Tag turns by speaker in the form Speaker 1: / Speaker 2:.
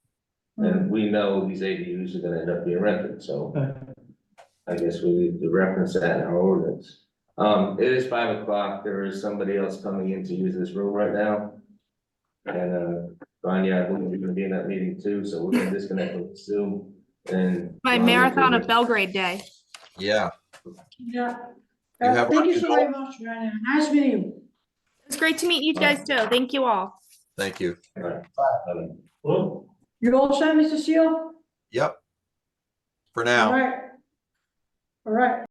Speaker 1: And we know these ADUs are gonna end up being rented, so
Speaker 2: Okay.
Speaker 1: I guess we need to reference that in our ordinance. Um, it is five o'clock, there is somebody else coming in to use this room right now. And, uh, Rania, I believe you're gonna be in that meeting too, so we're gonna disconnect with Zoom and.
Speaker 3: My marathon of Belgrade Day.
Speaker 4: Yeah,
Speaker 5: Yeah.
Speaker 4: You
Speaker 5: Uh,
Speaker 4: have
Speaker 5: Thank you
Speaker 4: our
Speaker 5: so very much, Joanna. Nice meeting you.
Speaker 3: It's great to meet you guys too. Thank you all.
Speaker 4: thank you.
Speaker 1: Um,
Speaker 2: Well,
Speaker 5: You all set, Mr. Seal?
Speaker 4: Yep. For
Speaker 5: All
Speaker 4: now.
Speaker 5: right. All right.